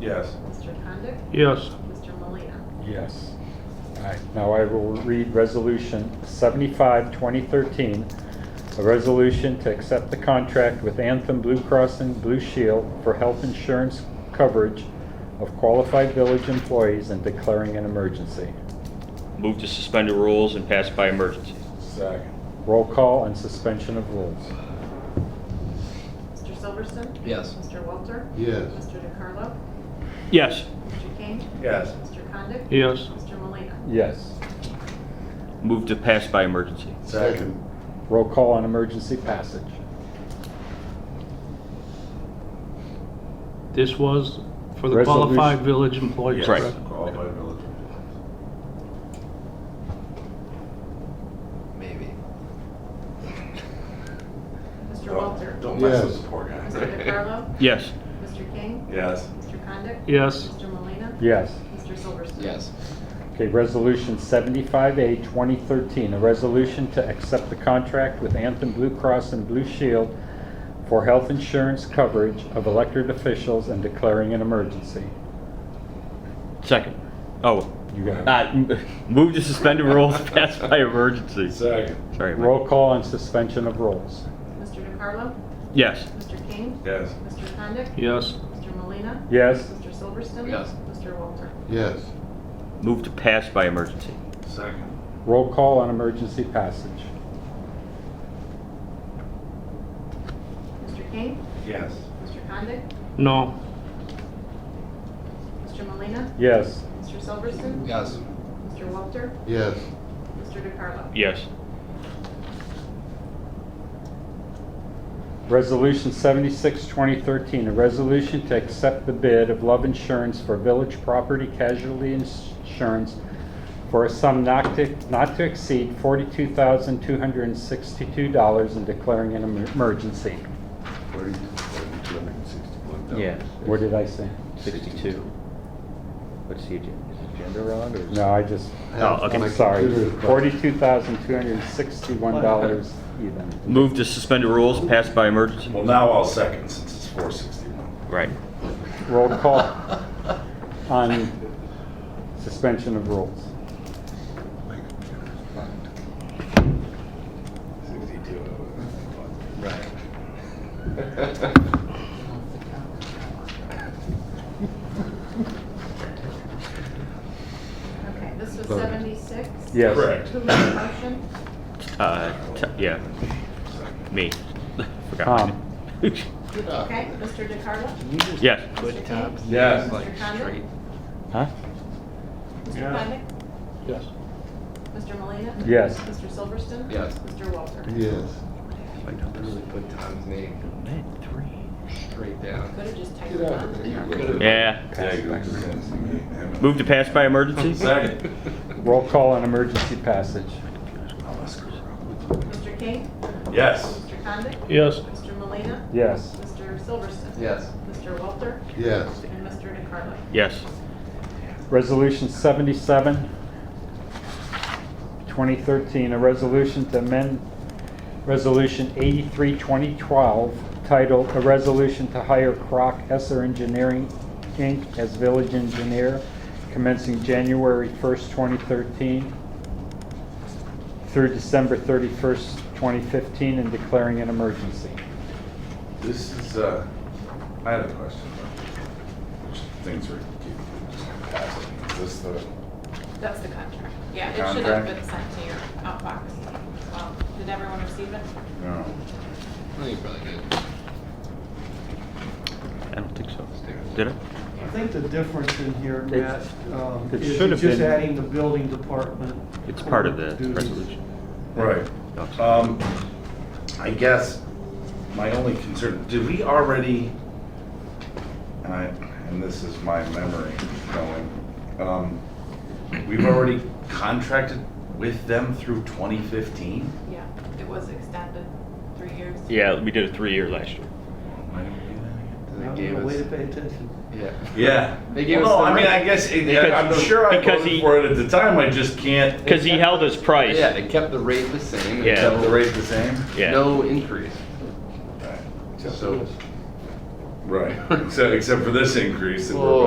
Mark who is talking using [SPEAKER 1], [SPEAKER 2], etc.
[SPEAKER 1] Yes.
[SPEAKER 2] Mr. Condit?
[SPEAKER 3] Yes.
[SPEAKER 2] Mr. Malina?
[SPEAKER 4] Yes. All right, now I will read Resolution 75, 2013, a resolution to accept the contract with Anthem Blue Cross and Blue Shield for health insurance coverage of qualified village employees and declaring an emergency.
[SPEAKER 5] Move to suspend the rules and pass by emergency.
[SPEAKER 1] Second.
[SPEAKER 4] Roll call and suspension of rules.
[SPEAKER 2] Mr. Silverston?
[SPEAKER 6] Yes.
[SPEAKER 2] Mr. Walter?
[SPEAKER 1] Yes.
[SPEAKER 2] Mr. DeCarlo?
[SPEAKER 5] Yes.
[SPEAKER 2] Mr. King?
[SPEAKER 1] Yes.
[SPEAKER 2] Mr. Condit?
[SPEAKER 3] Yes.
[SPEAKER 2] Mr. Malina?
[SPEAKER 4] Yes.
[SPEAKER 5] Move to pass by emergency.
[SPEAKER 1] Second.
[SPEAKER 4] Roll call on emergency passage.
[SPEAKER 3] This was for the
[SPEAKER 4] Resolution.
[SPEAKER 3] qualified village employees,
[SPEAKER 5] Right.
[SPEAKER 3] correct?
[SPEAKER 1] Qualified village.
[SPEAKER 6] Maybe.
[SPEAKER 2] Mr. Walter?
[SPEAKER 1] Don't mess with
[SPEAKER 7] Yes.
[SPEAKER 1] the poor guy.
[SPEAKER 2] Mr. DeCarlo?
[SPEAKER 5] Yes.
[SPEAKER 2] Mr. King?
[SPEAKER 1] Yes.
[SPEAKER 2] Mr. Condit?
[SPEAKER 3] Yes.
[SPEAKER 2] Mr. Malina?
[SPEAKER 4] Yes.
[SPEAKER 2] Mr. Silverston?
[SPEAKER 6] Yes.
[SPEAKER 4] Okay, Resolution 75A, 2013, a resolution to accept the contract with Anthem Blue Cross and Blue Shield for health insurance coverage of elected officials and declaring an emergency.
[SPEAKER 5] Second. Oh.
[SPEAKER 4] You got it.
[SPEAKER 5] Uh, m- Move to suspend the rules, pass by emergency.
[SPEAKER 1] Second.
[SPEAKER 5] Sorry. Mike.
[SPEAKER 4] Roll call on suspension of rules.
[SPEAKER 2] Mr. DeCarlo?
[SPEAKER 5] Yes.
[SPEAKER 2] Mr. King?
[SPEAKER 1] Yes.
[SPEAKER 2] Mr. Condit?
[SPEAKER 3] Yes.
[SPEAKER 2] Mr. Malina?
[SPEAKER 4] Yes,
[SPEAKER 2] Mr. Silverston?
[SPEAKER 6] Yes.
[SPEAKER 2] Mr. Walter?
[SPEAKER 7] Yes,
[SPEAKER 5] Move to pass by emergency.
[SPEAKER 1] Second.
[SPEAKER 4] roll call on emergency passage.
[SPEAKER 2] Mr. King?
[SPEAKER 1] Yes.
[SPEAKER 2] Mr. Condit?
[SPEAKER 3] No.
[SPEAKER 2] Mr. Malina?
[SPEAKER 4] Yes,
[SPEAKER 2] Mr. Silverston?
[SPEAKER 6] Yes.
[SPEAKER 2] Mr. Walter?
[SPEAKER 7] yes,
[SPEAKER 2] Mr. DeCarlo?
[SPEAKER 5] Yes.
[SPEAKER 4] Resolution 76, 2013, a resolution to accept the bid of Love Insurance for Village Property Casualty Insurance for a sum not to, not to exceed $42,262 and declaring an emer- emergency.
[SPEAKER 7] forty, forty-two hundred and sixty-one thousand.
[SPEAKER 5] Yeah.
[SPEAKER 4] What did I say?
[SPEAKER 5] 62. What's the agenda? Is it agenda wrong or?
[SPEAKER 4] No, I just,
[SPEAKER 5] Oh, okay.
[SPEAKER 4] I'm sorry. $42,261 even.
[SPEAKER 5] Move to suspend the rules, pass by emergency.
[SPEAKER 1] Well, now I'll second since it's four sixty-one.
[SPEAKER 5] Right.
[SPEAKER 4] Roll call on suspension of rules.
[SPEAKER 1] Sixty-two.
[SPEAKER 6] Right.
[SPEAKER 2] Okay, this was
[SPEAKER 7] Vote.
[SPEAKER 2] 76?
[SPEAKER 4] Yes.
[SPEAKER 1] Correct.
[SPEAKER 2] Who made the motion?
[SPEAKER 5] Uh, t- yeah. Me. Forgot.
[SPEAKER 4] Tom?
[SPEAKER 2] Okay, Mr. DeCarlo?
[SPEAKER 5] Yes.
[SPEAKER 2] Mr. King?
[SPEAKER 1] Yes.
[SPEAKER 2] Mr. Condit?
[SPEAKER 4] Huh?
[SPEAKER 2] Mr.
[SPEAKER 1] Yes.
[SPEAKER 2] Condit?
[SPEAKER 3] Yes.
[SPEAKER 2] Mr. Malina?
[SPEAKER 4] Yes.
[SPEAKER 2] Mr. Silverston?
[SPEAKER 6] Yes.
[SPEAKER 2] Mr. Walter?
[SPEAKER 7] Yes,
[SPEAKER 6] Really put Tom's name straight
[SPEAKER 2] Could
[SPEAKER 6] down.
[SPEAKER 2] have just typed
[SPEAKER 7] Get
[SPEAKER 2] it
[SPEAKER 7] out of
[SPEAKER 2] on.
[SPEAKER 7] there.
[SPEAKER 5] Yeah.
[SPEAKER 1] Second.
[SPEAKER 5] Move to pass by emergency?
[SPEAKER 4] Roll call on emergency passage.
[SPEAKER 2] Mr. King?
[SPEAKER 1] Yes.
[SPEAKER 2] Mr. Condit?
[SPEAKER 3] Yes.
[SPEAKER 2] Mr. Malina?
[SPEAKER 4] Yes.
[SPEAKER 2] Mr. Silverston?
[SPEAKER 6] Yes.
[SPEAKER 2] Mr. Walter?
[SPEAKER 7] yes,
[SPEAKER 2] And Mr. DeCarlo?
[SPEAKER 5] Yes.
[SPEAKER 4] Resolution 77, 2013, a resolution to amend Resolution 83, 2012, titled "A Resolution to Hire Croc Esser Engineering, Inc. as Village Engineer Commencing January 1st, 2013 through December 31st, 2015, and declaring an emergency."
[SPEAKER 1] This is, uh, I had a question. though. Which Things are, keep- just passing. Is this the,
[SPEAKER 2] That's the contract. Yeah, it should have
[SPEAKER 1] Contract.
[SPEAKER 2] been sent to your outbox. Um, Did everyone receive it?
[SPEAKER 1] no.
[SPEAKER 6] I think you probably did.
[SPEAKER 5] I don't think so. Did it?
[SPEAKER 8] I think the difference in here,
[SPEAKER 4] It-
[SPEAKER 8] Matt, um,
[SPEAKER 4] it
[SPEAKER 8] is
[SPEAKER 4] should
[SPEAKER 8] you're
[SPEAKER 4] have
[SPEAKER 8] just
[SPEAKER 4] been-
[SPEAKER 8] adding the building department.
[SPEAKER 5] It's part of the
[SPEAKER 8] duties.
[SPEAKER 5] resolution.
[SPEAKER 1] Right.
[SPEAKER 6] Uh,
[SPEAKER 1] Um, I guess my only concern, did we already, and I, and this is my memory going, um, we've already contracted with them through 2015?
[SPEAKER 2] Yeah, it was extended three years.
[SPEAKER 5] Yeah, we did a three-year last year.
[SPEAKER 1] Why did we do that again?
[SPEAKER 6] They
[SPEAKER 8] Now,
[SPEAKER 6] gave
[SPEAKER 8] the Way to
[SPEAKER 6] us-
[SPEAKER 8] pay attention.
[SPEAKER 6] Yeah.
[SPEAKER 1] Yeah.
[SPEAKER 6] They gave
[SPEAKER 1] Well,
[SPEAKER 6] us
[SPEAKER 1] No,
[SPEAKER 6] the
[SPEAKER 1] I mean,
[SPEAKER 6] right-
[SPEAKER 1] I guess, it-
[SPEAKER 5] Because-
[SPEAKER 1] I'm sure I
[SPEAKER 5] because
[SPEAKER 1] voted
[SPEAKER 5] he-
[SPEAKER 1] for it at the time, I just can't.
[SPEAKER 5] Because he held his price.
[SPEAKER 6] Yeah, they kept the rate the same. and
[SPEAKER 5] Yeah.
[SPEAKER 1] Kept the
[SPEAKER 6] no-
[SPEAKER 1] rate the same?
[SPEAKER 5] Yeah.
[SPEAKER 6] No increase.
[SPEAKER 1] Right.
[SPEAKER 6] So.
[SPEAKER 1] Right, except, except for this increase that we're
[SPEAKER 6] Whoa.